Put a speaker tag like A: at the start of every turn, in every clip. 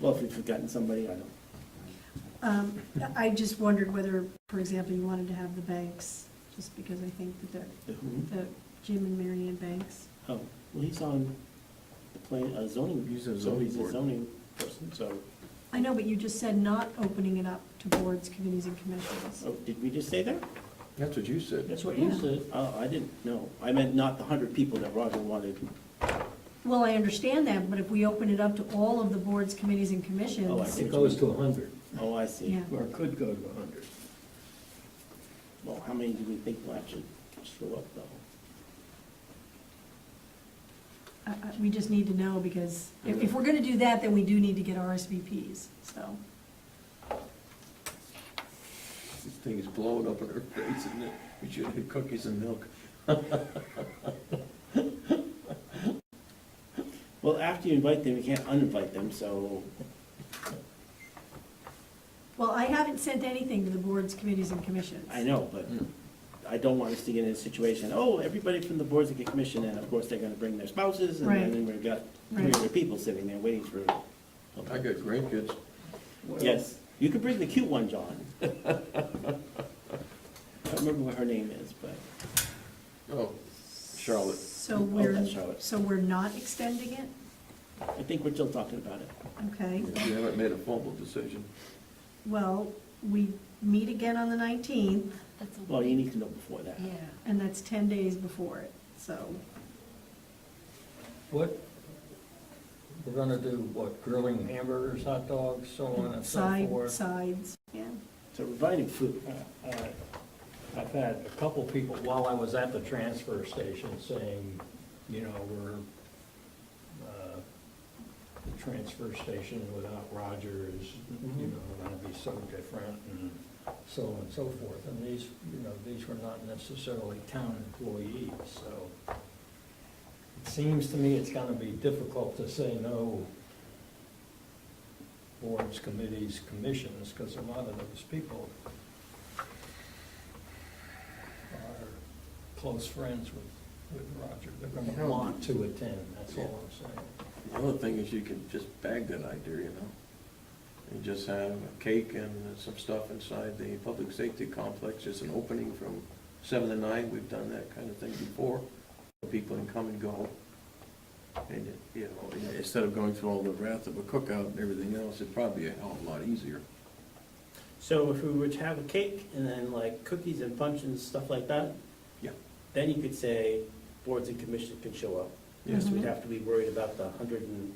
A: Well, if we've forgotten somebody, I don't.
B: Um, I just wondered whether, for example, you wanted to have the banks, just because I think that
A: the
B: the,
C: Mm-hmm.
A: who-
B: the Jim and Marion Banks.
A: Oh, well, he's on the plan, uh, zoning.
C: He's a
A: so
C: zoning
A: He's a
C: board.
A: zoning person, so,
B: I know, but you just said not opening it up to boards, committees, and commissions.
A: oh, did we just say that?
C: That's what you said.
A: That's what you
B: Yeah.
A: said. Oh, I didn't know. I meant not the hundred people that Roger wanted.
B: Well, I understand that, but if we open it up to all of the boards, committees, and
A: Oh, I
B: commissions,
A: see.
D: It goes to a hundred,
A: Oh, I see.
B: Yeah.
D: or it could go to a hundred.
A: Well, how many do we think will actually show up though?
B: I- I- we just need to know, because if, if we're gonna do that, then we do need to get RSVPs, so.
C: This thing is blowing up in our face, isn't it? We should have cookies and milk.
A: Well, after you invite them, you can't uninvite them, so,
B: Well, I haven't sent anything to the boards, committees, and commissions.
A: I know, but
D: Hmm.
A: I don't want us to get in a situation, oh, everybody from the boards and the commission, and of course, they're gonna bring their spouses, and
B: Right.
A: then we've got three
B: Right.
A: other people sitting there waiting for.
C: I got grandkids.
A: Yes, you could bring the cute one, John. I don't remember what her name is, but,
C: Oh, Charlotte.
B: So
A: Oh,
B: we're,
A: that's Charlotte.
B: so we're not extending it?
A: I think we're still talking about it.
B: Okay.
C: We haven't made a formal decision.
B: Well, we meet again on the 19th,
E: That's a,
A: Well, you need to know before that.
E: yeah.
B: and that's 10 days before it, so.
D: What, we're gonna do, what, grilling hamburgers, hot dogs, so on and so
B: side
D: forth?
B: Sides, yeah.
A: So we're providing food.
D: Uh, uh, I've had a couple people, while I was at the transfer station, saying, you know, we're, uh, the transfer station without Roger is, you know, gonna be so different, and so on and so forth. And these, you know, these were not necessarily town employees, so it seems to me it's gonna be difficult to say no boards, committees, commissions, because a lot of those people are close friends with, with Roger. They're gonna want to attend, that's all I'm saying.
C: The other thing is you could just bag that idea, you know? And just have a cake and some stuff inside the public safety complex, just an opening from seven to nine. We've done that kind of thing before. People can come and go. And, you know, instead of going through all the wrath of a cookout and everything else, it'd probably be a hell of a lot easier.
A: So if we were to have a cake and then like cookies and punch and stuff like that?
C: Yeah.
A: Then you could say boards and commissions can show up. Yes,
B: Mm-hmm.
A: we'd have to be worried about the hundred and,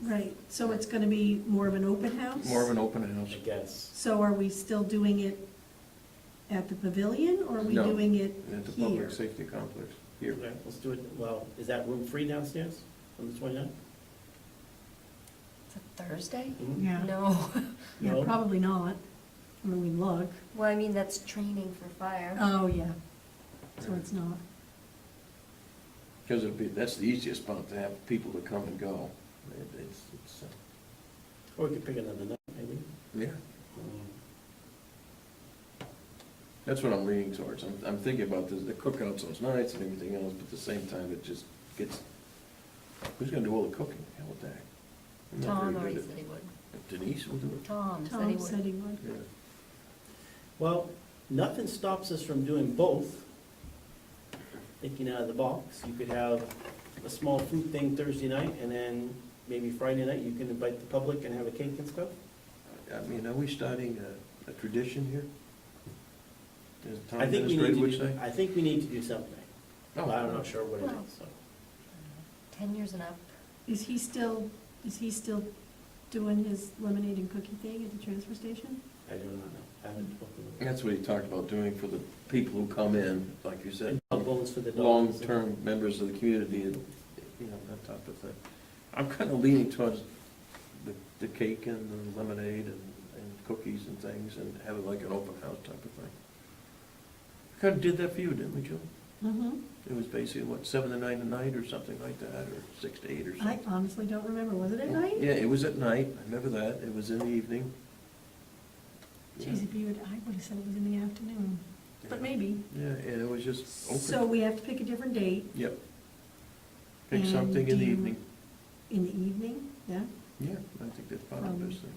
B: Right, so it's going to be more of an open house?
C: More of an open house.
A: I guess.
B: So are we still doing it at the pavilion, or are we
C: No.
B: doing it
C: At the
B: here?
C: public safety complex, here.
A: Okay, Let's do it, well, is that room free downstairs on the twenty-ninth?
E: It's a Thursday?
B: Yeah.
E: No.
B: Yeah,
A: Mm-hmm. No.
B: probably not. I mean, we look.
E: Well, I mean, that's training for fire.
B: Oh, yeah, so it's not.
C: Because it'd be, that's the easiest spot to have people to come and go. It- It's, it's, uh,
A: Or we could pick another night, maybe.
C: yeah,
A: Mm.
C: that's what I'm leaning towards. I'm, I'm thinking about the, the cookouts those nights and everything else, but at the same time, it just gets, who's gonna do all the cooking? Hell, dang. I'm not
E: Tom
C: very
E: already
C: good
E: said he would.
C: at- Denise will do
E: Tom said he
B: Tom said
E: would.
B: he would.
C: it. Yeah.
A: Well, nothing stops us from doing both. Thinking out of the box, you could have a small food thing Thursday night, and then maybe Friday night, you can invite the public and have a cake and stuff.
C: I mean, are we starting a, a tradition here? As Tom
A: I think we need
C: Administrator
A: to
C: would
A: do,
C: say? Oh.
A: I think we need to do something,
C: No.
A: but I'm not sure what it
E: Well.
A: is, so.
E: Uh, Ten years and up.
B: Is he still, is he still doing his lemonade and cookie thing at the transfer station?
A: I do not know. I haven't spoken with
C: That's what he talked about doing for the people who come in, like you said.
A: And dog bones for the dogs.
C: uh, long-term members of the community, and, you know, that type of thing. I'm kind of leaning towards the, the cake and the lemonade and, and cookies and things, and have it like an open house type of thing. Kind of did that for you, didn't we, Joe?
B: Mm-hmm.
C: It was basically, what, seven to nine at night, or something like that, or six to eight or
B: I
C: something?
B: honestly don't remember, was it at night?
C: Yeah, it was at night, I remember that, it was in the evening.
B: Geez, if you would, I would have said it was in the afternoon, but
C: Yeah.
B: maybe.
C: Yeah, and it was just
B: So
C: open,
B: we have to pick a different date
C: yep. Pick
B: And
C: something in
B: do
C: the
B: you-
C: evening,
B: in the evening, yeah?
C: Yeah, I think that's part of this thing.